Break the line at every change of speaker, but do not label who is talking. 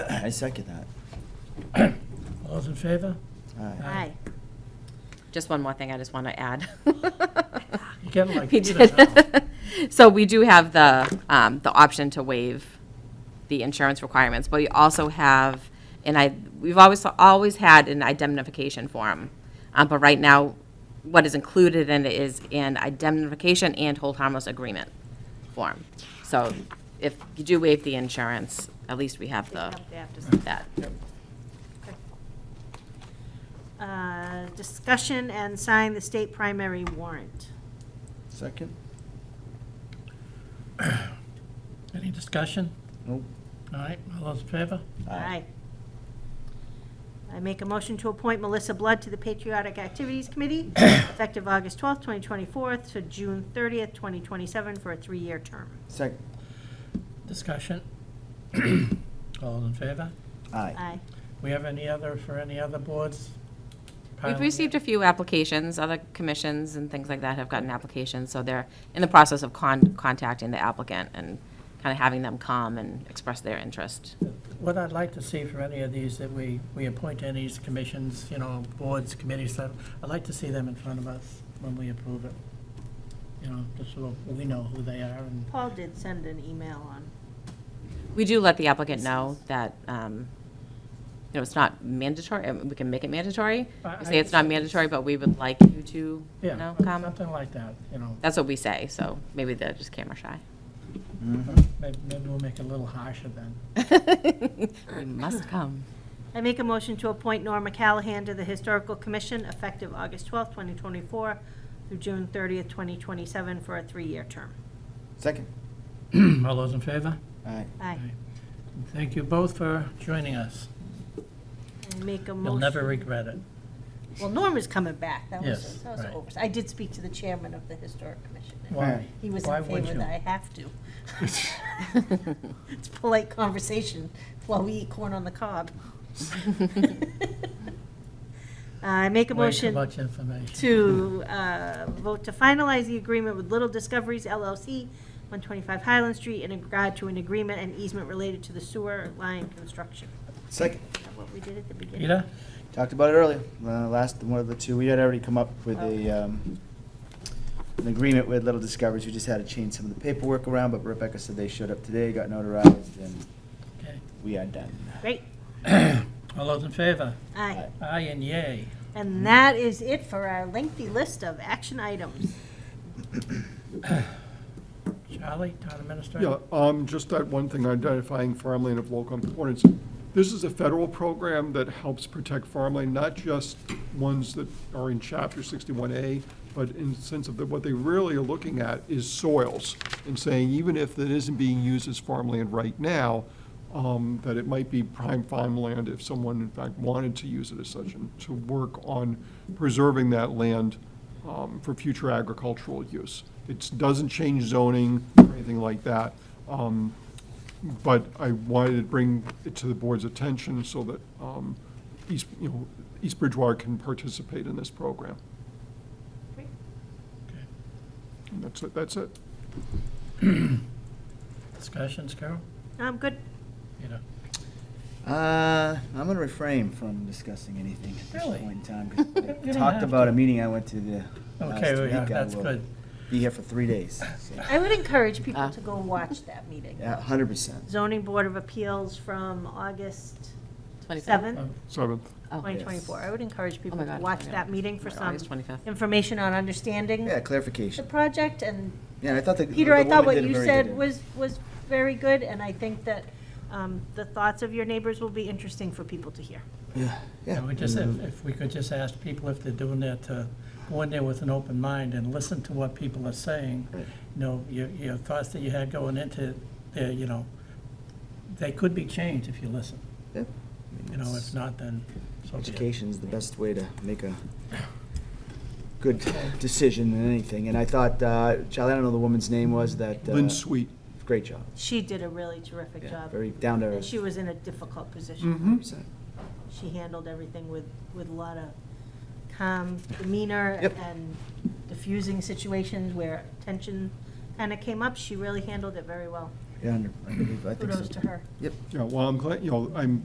I second that.
All those in favor?
Aye.
Aye.
Aye. Just one more thing I just want to add.
You get like
We
Peter
did- So we do have the, um, the option to waive the insurance requirements, but we also have, and I, we've always, always had an indemnification form. Um, But right now, what is included in it is an indemnification and hold harmless agreement form. So if you do waive the insurance, at least we have the, that.
Uh, Discussion and sign the state primary warrant.
Second?
Any discussion?
Nope.
All right, all those in favor?
Aye. I make a motion to appoint Melissa Blood to the Patriotic Activities Committee, effective August 12th, 2024 to June 30th, 2027, for a three-year term.
Second?
Discussion? All those in favor?
Aye.
Aye.
We have any other, for any other boards?
We've
Piling
received
it?
a few applications, other commissions and things like that have gotten applications, so they're in the process of con- contacting the applicant and kind of having them come and express their interest.
What I'd like to see for any of these, that we, we appoint to any of these commissions, you know, boards, committees, stuff, I'd like to see them in front of us when we approve it. You know, just so we know who they are and
Paul did send an email on,
We do let the applicant know that, um, you know, it's not mandatory, uh, we can make it mandatory.
I-
We
I
say it's not
just-
mandatory, but we would like you to, you
Yeah,
know, come.
something like that, you know.
That's what we say, so maybe they're just camera shy.
Mhm.
Maybe maybe we'll make it a little harsher then.
You Must come.
I make a motion to appoint Norma Callahan to the Historical Commission, effective August 12th, 2024 through June 30th, 2027, for a three-year term.
Second?
All those in favor?
Aye.
Aye.
Thank you both for joining us.
I make a motion.
You'll never regret it.
Well, Norm is coming back. That
Yes,
was, that was
right.
an oversight. I did speak to the chairman of the Historic Commission. and
Why?
He was
Why
in
would
favor
you?
that I have to. It's polite conversation while we eat corn on the cob. I make a
Way too
motion
much information.
to uh, vote to finalize the agreement with Little Discoveries LLC, 125 Highland Street, in regard to an agreement and easement related to the sewer line construction.
Second?
Is that what we did at the beginning?
Peter?
Talked about it earlier, uh, last, one of the two, we had already come up with a, um, an agreement with Little Discoveries, we just had to change some of the paperwork around, but Rebecca said they showed up today, got notarized, and
Okay.
we are done.
Great.
All those in favor?
Aye.
Aye.
Aye and yay.
And that is it for our lengthy list of action items.
Charlie, town administrator?
Yeah, um, just that one thing, identifying farmland of local importance. This is a federal program that helps protect farmland, not just ones that are in chapter sixty-one A, but in the sense of that what they really are looking at is soils and saying, even if it isn't being used as farmland right now, um, that it might be prime farmland if someone in fact wanted to use it as such and to work on preserving that land um, for future agricultural use. It doesn't change zoning or anything like that, um, but I wanted to bring it to the board's attention so that um, East, you know, East Bridgewater can participate in this program.
Okay.
And that's it, that's it.
Discussions, Carol?
I'm Um, good.
Peter?
Uh, I'm gonna refrain from discussing anything at this
Really?
point in time, because
You
I
don't
talked
have
about a
to.
meeting I went to the last
Okay, well, yeah,
week. I
that's
will
good.
Be here for three days, so,
I would encourage people
Ah.
to go watch that meeting.
yeah, hundred percent.
Zoning Board of Appeals from August
27th?
7th,
Seventh.
Oh.
2024. I would encourage
Oh
people
my
to
God,
watch
25th.
that meeting for
Like
some
August 25th.
information on understanding
Yeah,
the
clarification.
project. And
Yeah, I thought the.
Peter,
the
I
woman
thought what
did a
you
very
said
good-
was, was very good, and I think that um, the thoughts of your neighbors will be interesting for people to hear.
Yeah, yeah.
And we just, if
Mhm.
if we could just ask people if they're doing that, to go in there with an open mind and listen to what people are saying. You
Right.
know, your, your thoughts that you had going into there, you know, they could be changed if you listen.
Yeah.
You know, if not, then so be it.
Education's the best way to make a good decision in anything, and I thought, uh, Charlie, I don't know the woman's name was, that. uh,
Lynn Sweet.
Great job.
She did a really terrific
Yeah,
job.
Very down to
And
earth. Hmm?
she was in a difficult position.
100%.
she handled everything with, with a lot of calm demeanor
Yep.
and diffusing situations where tension kind of came up. She really handled it very well.
Yeah, I believe, I think so.
Kudos to
too.
her.
Yep.
Yeah, well, I'm glad, you know, I'm